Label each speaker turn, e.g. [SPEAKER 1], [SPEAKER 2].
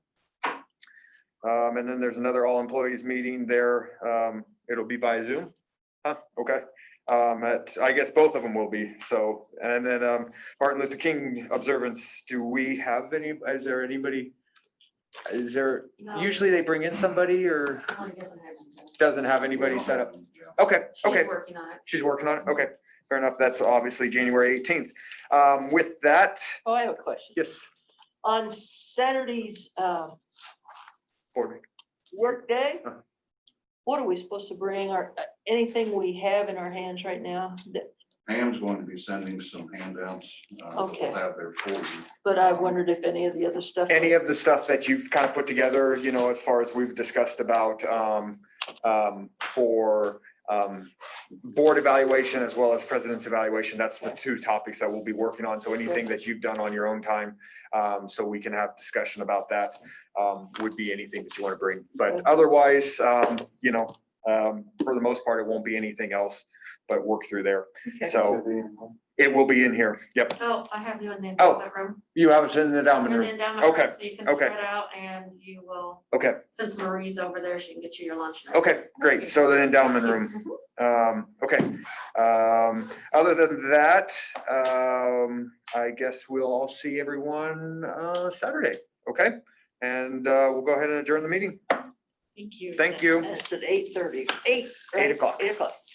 [SPEAKER 1] Um, and then there's another all employees meeting there. Um, it'll be by Zoom. Huh, okay. Um, at, I guess both of them will be, so, and then, um, Martin Luther King observance, do we have any, is there anybody? Is there, usually they bring in somebody or doesn't have anybody set up? Okay, okay.
[SPEAKER 2] She's working on it.
[SPEAKER 1] She's working on it. Okay, fair enough. That's obviously January eighteenth. Um, with that,
[SPEAKER 3] Oh, I have a question.
[SPEAKER 1] yes,
[SPEAKER 3] On Saturday's um,
[SPEAKER 1] board meeting.
[SPEAKER 3] work day,
[SPEAKER 1] Uh-huh.
[SPEAKER 3] what are we supposed to bring or uh, anything we have in our hands right now? that-
[SPEAKER 4] Pam's going to be sending some handouts. uh, that
[SPEAKER 3] Okay.
[SPEAKER 4] We'll have there for you.
[SPEAKER 3] But I wondered if any of the other stuff.
[SPEAKER 1] any of the stuff that you've kind of put together, you know, as far as we've discussed about um, um, for um, board evaluation as well as president's evaluation, that's the two topics that we'll be working on. So anything that you've done on your own time, um, so we can have discussion about that um, would be anything that you want to bring. But otherwise, um, you know, um, for the most part, it won't be anything else but work through there.
[SPEAKER 3] Okay.
[SPEAKER 1] So it will be in here. Yep.
[SPEAKER 2] Oh, I have you in the
[SPEAKER 1] Oh,
[SPEAKER 2] endowment room.
[SPEAKER 1] You have us in the
[SPEAKER 2] You're in
[SPEAKER 1] dominant
[SPEAKER 2] the
[SPEAKER 1] room.
[SPEAKER 2] endowment room,
[SPEAKER 1] Okay,
[SPEAKER 2] So you can
[SPEAKER 1] okay.
[SPEAKER 2] spread out and you will,
[SPEAKER 1] Okay,
[SPEAKER 2] since Marie's over there, she can get you your lunch. now.
[SPEAKER 1] okay, great. So the endowment room.
[SPEAKER 2] Mhm.
[SPEAKER 1] Um, okay, um, other than that, um, I guess we'll all see everyone, uh, Saturday, okay? And, uh, we'll go ahead and adjourn the meeting.
[SPEAKER 2] Thank you.
[SPEAKER 1] Thank you.
[SPEAKER 3] It's at eight thirty, eight. right?
[SPEAKER 1] Eight o'clock.
[SPEAKER 3] Eight o'clock.